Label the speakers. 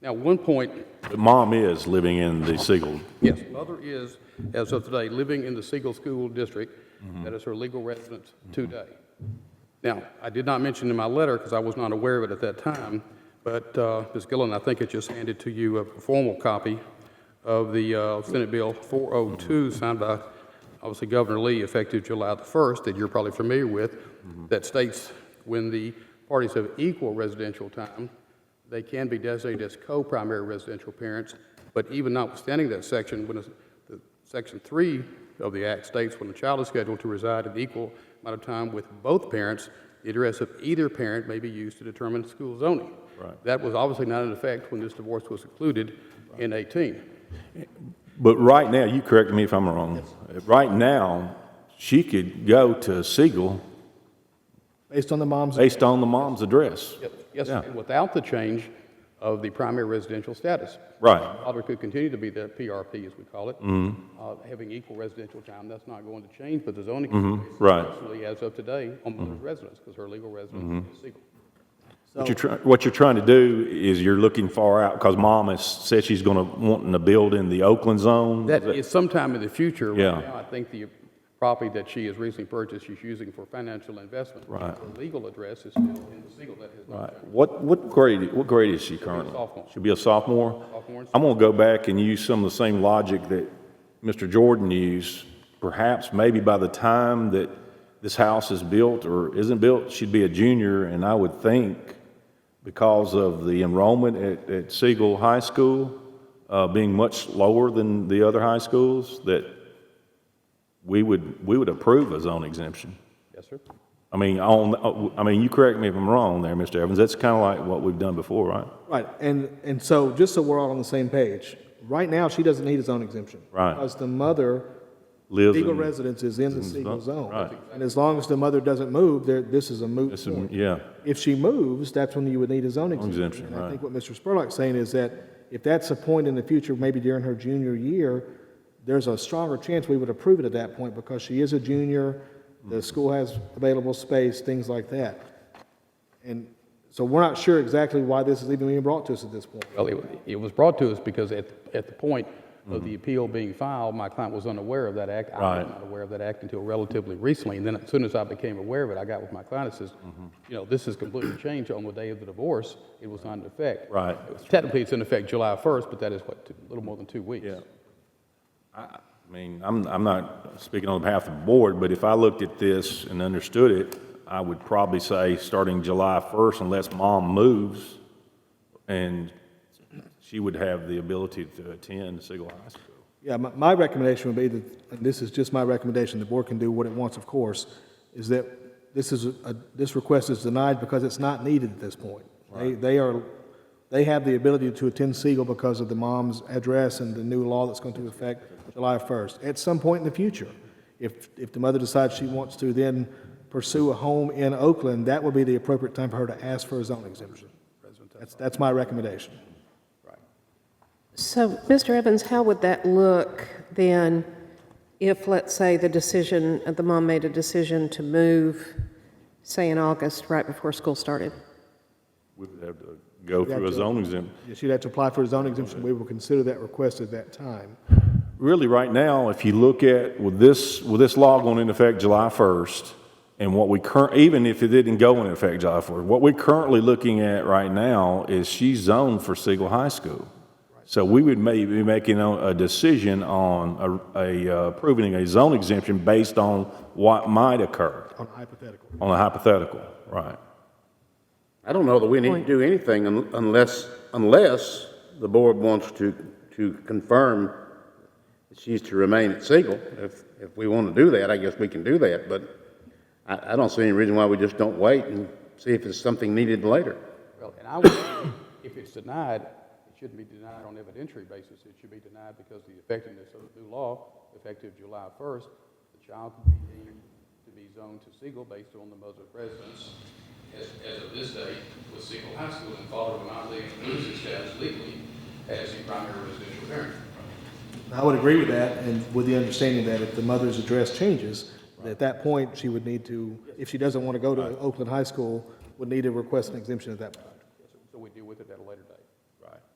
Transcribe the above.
Speaker 1: Now, one point
Speaker 2: But Mom is living in the Siegel.
Speaker 1: Yes, mother is, as of today, living in the Siegel School District. That is her legal residence today. Now, I did not mention in my letter, because I was not aware of it at that time, but uh, Ms. Gillen, I think it just handed to you a formal copy of the uh, Senate Bill 402, signed by, obviously, Governor Lee, effective July the 1st, that you're probably familiar with, that states when the parties have equal residential time, they can be designated as co-primary residential parents, but even notwithstanding that section, when, it's- the- Section 3 of the Act states when a child is scheduled to reside an equal amount of time with both parents, the address of either parent may be used to determine school zoning. Right. That was obviously not in effect when this divorce was concluded in 18.
Speaker 2: But right now, you correct me if I'm wrong, right now, she could go to Siegel
Speaker 3: Based on the mom's,
Speaker 2: based on the mom's address.
Speaker 1: Yes,
Speaker 2: Yeah.
Speaker 1: and without the change of the primary residential status.
Speaker 2: Right.
Speaker 1: Father could continue to be the PRP, as we call it,
Speaker 2: Mm-hmm.
Speaker 1: uh, having equal residential time. That's not going to change, but the zoning. is
Speaker 2: Mm-hmm. right. Mm-hmm.
Speaker 1: Personally, as of today, on mother's residence, because her legal residence is Siegel.
Speaker 2: What you're, try- what you're trying to do is you're looking far out, because Mom has said she's gonna, wanting to build in the Oakland zone.
Speaker 1: That is sometime in the future. Right
Speaker 2: Yeah.
Speaker 1: now, I think the property that she has recently purchased, she's using for financial investment.
Speaker 2: Right.
Speaker 1: Her legal address is still in Siegel. That has not
Speaker 2: Right. What, what grade, what grade is she currently?
Speaker 1: sophomore.
Speaker 2: She'll be a sophomore?
Speaker 1: Sophomore.
Speaker 2: I'm gonna go back and use some of the same logic that Mr. Jordan used. Perhaps, maybe by the time that this house is built or isn't built, she'd be a junior, and I would think because of the enrollment at, at Siegel High School, uh, being much lower than the other high schools, that we would, we would approve a zone exemption.
Speaker 1: Yes, sir.
Speaker 2: I mean, on, I mean, you correct me if I'm wrong there, Mr. Evans, that's kind of like what we've done before, right?
Speaker 3: right, and, and so, just so we're all on the same page, right now, she doesn't need a zone exemption.
Speaker 2: Right.
Speaker 3: Because the mother,
Speaker 2: Lives
Speaker 3: legal
Speaker 2: in-
Speaker 3: residence is in the Siegel
Speaker 2: zone,
Speaker 3: zone.
Speaker 2: right.
Speaker 3: And as long as the mother doesn't move, there, this is a moot
Speaker 2: This is-
Speaker 3: point.
Speaker 2: Yeah,
Speaker 3: If she moves, that's when you would need a zone exemption.
Speaker 2: exemption,
Speaker 3: And I
Speaker 2: right.
Speaker 3: think what Mr. Spurlock's saying is that if that's a point in the future, maybe during her junior year, there's a stronger chance we would approve it at that point because she is a junior,
Speaker 2: Mm-hmm.
Speaker 3: the school has available space, things like that. And so we're not sure exactly why this is even being brought to us at this point.
Speaker 1: Well, it, it was brought to us because at, at the point of the appeal being filed, my client was unaware of that act. I was
Speaker 2: Mm-hmm. Right.
Speaker 1: not aware of that act until relatively recently, and then as soon as I became aware of it, I got with my client and says,
Speaker 2: Mm-hmm.
Speaker 1: you know, this has completely changed on the day of the divorce, it was not in effect.
Speaker 2: Right.
Speaker 1: Technically, it's in effect July 1st, but that is what, two- a little more than two weeks.
Speaker 2: yeah. I I mean, I'm, I'm not speaking on behalf of the board, but if I looked at this and understood it, I would probably say, starting July 1st, unless mom moves, and she would have the ability to attend Siegel High School.
Speaker 3: Yeah, my, my recommendation would be that, and this is just my recommendation, the board can do what it wants, of course, is that this is, a- this request is denied because it's not needed at this point. They, they are, they have the ability to attend Siegel because of the mom's address and the new law that's going to affect July 1st. At some point in the future, if, if the mother decides she wants to then pursue a home in Oakland, that would be the appropriate time for her to ask for a zone exemption. That's, that's my recommendation.
Speaker 4: So, Mr. Evans, how would that look then if, let's say, the decision, the mom made a decision to move, say, in August, right before school started?
Speaker 2: We would have to go through a
Speaker 3: Gotcha.
Speaker 2: zone exemption.
Speaker 3: She'd have to apply for a zone exemption. We will consider that request at that time.
Speaker 2: really right now, if you look at with this with this law going into effect July first, and what we current even if it didn't go into effect July first, what we're currently looking at right now is she's zoned for Siegel High School. So we would maybe be making a a decision on a, a uh, approving a zone exemption based on what might occur
Speaker 3: on hypothetical.
Speaker 2: on a hypothetical, right?
Speaker 5: I don't know that we need to
Speaker 4: Point.
Speaker 5: do anything un- unless, unless the board wants to, to confirm that she's to remain at Siegel. If, if we want to do that, I guess we can do that, but I, I don't see any reason why we just don't wait and see if it's something needed later.
Speaker 1: Well, and I would, if it's denied, it shouldn't be denied on evidentiary basis. It should be denied because the effectiveness of the new law, effective July 1st, the child could be deemed to be zoned to Siegel based on the mother's residence as, as of this date with Siegel High School and father will not leave, lose his status legally as the primary residential parent.
Speaker 3: I would agree with that, and with the understanding that if the mother's address changes, at that point, she would need to, if she doesn't want to go to Oakland High School, would need to request an exemption at that point.
Speaker 1: So we deal with it at a later date.